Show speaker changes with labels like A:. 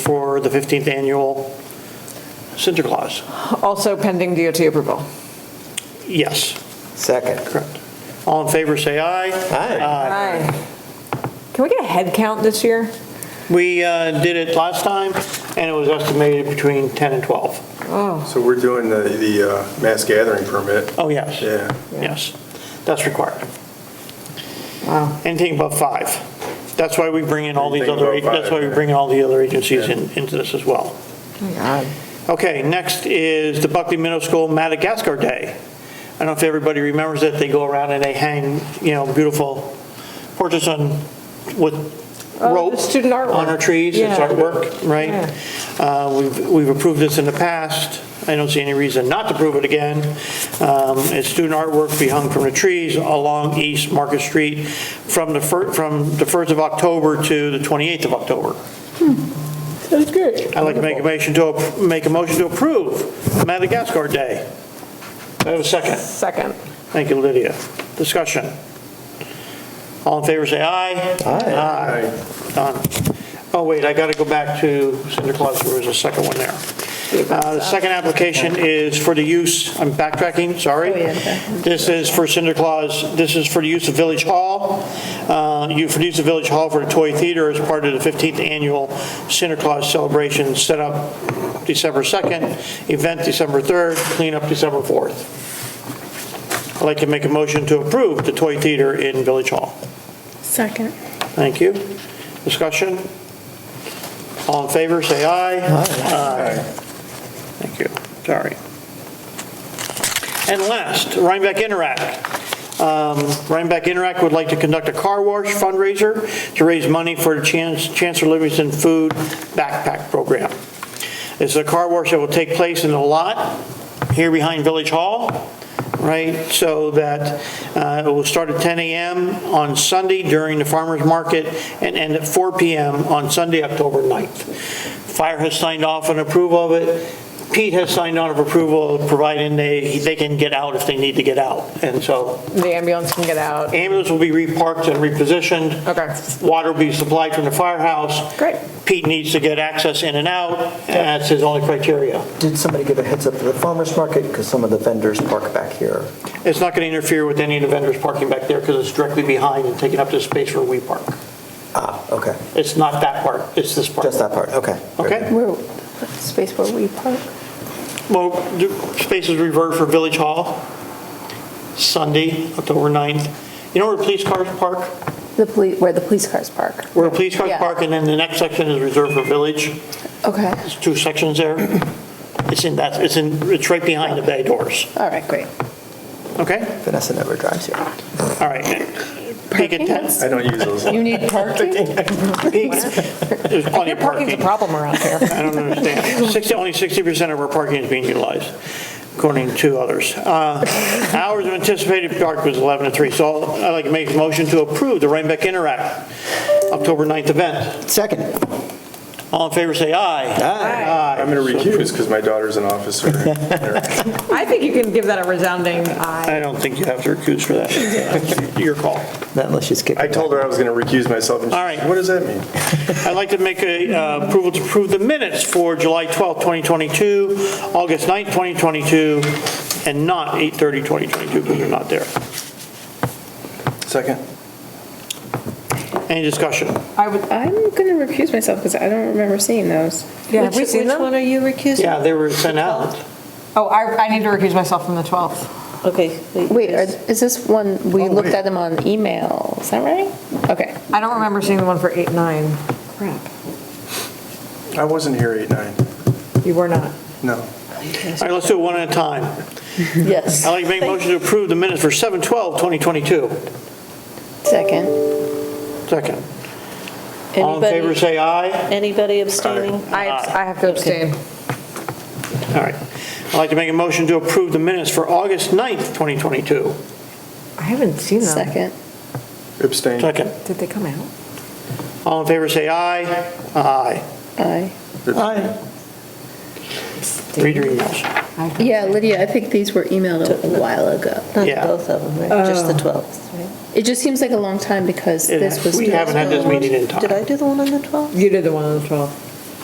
A: for the 15th annual Santa Claus.
B: Also pending DOT approval.
A: Yes,
C: Second.
A: correct. All in favor, say aye. Uh,
C: Aye.
B: Aye. Can we get a head count this year?
A: We uh, did it last time, and it was estimated between 10 and 12.
D: So we're doing the, the uh, mass gathering permit,
A: Oh, yes.
D: yeah.
A: Yes, that's required. Anything above five. That's why we bring in all these
D: Anything
A: other,
D: above
A: that's why we
D: five.
A: bring in all the other agencies in- into this as well.
B: Oh,
A: Okay, next is the Buckley Middle School Madagascar Day. I don't know if everybody remembers it, they go around and they hang, you know, beautiful portraits on, with
B: Oh, the
A: rope.
B: student artwork.
A: On our trees, it's
B: Yeah.
A: artwork, right? Uh, We've we've approved this in the past, I don't see any reason not to approve it again. Um, It's student artwork be hung from the trees along East Market Street from the fir- from the 1st of October to the 28th of October.
B: That's Hmm. good.
A: I'd like to make a motion to, ap- make a motion to approve Madagascar Day. I have a second.
B: Second.
A: Thank you, Lydia. Discussion. All in favor, say aye.
C: Aye.
A: Aye. Done. Oh, wait, I got to go back to Cinder Claus, there was a second one there. Uh, The second application is for the use, I'm backtracking, sorry. This is for Cinder Claus, this is for the use of Village Hall, Uh, you, for the use of Village Hall for the Toy Theater as part of the 15th Annual Cinder Claus Celebration, set up December 2nd, event December 3rd, cleanup December 4th. I'd like to make a motion to approve the Toy Theater in Village Hall.
E: Second.
A: Thank you. Discussion? All in favor, say aye. Aye. Thank you, sorry. And last, Rhinebeck Interact. Um, Rhinebeck Interact would like to conduct a car wash fundraiser to raise money for the Chan- Chancellor Livingston Food Backpack Program. It's a car wash that will take place in the lot here behind Village Hall right? So that uh, it will start at 10 a.m. on Sunday during the farmer's market and end at 4 p.m. on Sunday, October 9th. Fire has signed off on approval of it. Pete has signed on of approval, providing they, they can get out if they need to get out. And so
B: The ambulance can get out.
A: ambulance will be reparked and repositioned.
B: Okay.
A: Water will be supplied from the firehouse.
B: Great.
A: Pete needs to get access in and out, and that's his only criteria.
C: Did somebody give a heads up to the farmer's market? Because some of the vendors park back here.
A: It's not going to interfere with any of the vendors parking back there because it's directly behind and taking up the space where we park.
C: Ah, okay,
A: It's not that part, it's this part.
C: just that part, okay.
A: Okay,
E: Where, space where we park?
A: well, the space is reserved for Village Hall, Sunday, October 9th. You know where police cars park?
E: The police, where the police cars park.
A: Where police cars
E: Yeah.
A: park, and then the next section is reserved for Village.
E: Okay,
A: There's two sections there. It's in that, it's in, it's right behind the bay doors.
E: all right, great.
A: Okay,
C: Vanessa never drives here.
A: all right. Peak at 10.
D: I don't use those.
E: You need parking?
A: Peak. There's plenty
B: Your
A: of parking.
B: parking's a problem around here.
A: I don't understand. 60, only 60% of our parking is being utilized, according to others. Uh, Hours of anticipated park was 11 to 3, so I'd like to make a motion to approve the Rhinebeck Interact October 9th event.
C: Second.
A: All in favor, say aye.
D: I'm going to recuse because my daughter's an officer.
B: I think you can give that a resounding aye.
A: I don't think you have to recuse for that. Your call.
C: Not unless she's kicking.
D: I told her I was going to recuse myself. and she-
A: All right.
D: What does that mean?
A: I'd like to make a uh, approval to approve the minutes for July 12th, 2022, August 9th, 2022, and not 8:30, 2022, because they're not there.
C: Second.
A: Any discussion?
B: I would,
F: I'm gonna recuse myself because I don't remember seeing those.
B: yeah, have we seen
G: Which
B: them?
G: one are you recusing?
A: Yeah, they were sent out.
B: Oh, I, I need to recuse myself from the 12th.
G: Okay.
F: Wait, are- is this one,
A: Oh,
F: we looked at them on email, is that right? Okay.
B: I don't remember seeing the one for 8, 9.
D: I wasn't here eight, nine.
B: You were not.
D: No.
A: All right, let's do it one at a time.
F: Yes.
A: I'd like to make a motion to approve the minutes for 7/12/2022.
F: Second.
A: Second. All in favor, say aye.
G: Anybody abstaining?
B: I, I have to abstain.
A: All right. I'd like to make a motion to approve the minutes for August 9th, 2022.
B: I haven't seen them.
F: Second.
D: Abstain.
A: Second.
B: Did they come out?
A: All in favor, say aye. Aye.
F: Aye.
C: Aye.
A: Read your emails.
F: Yeah, Lydia, I think these were emailed a while ago.
G: Not
A: Yeah.
G: both of them, right? Just the 12th, right?
F: It just seems like a long time because
A: It-
F: this was.
A: We haven't had this meeting in
G: Did
A: time.
G: I do the one on the 12th?
B: You did the one on the 12th.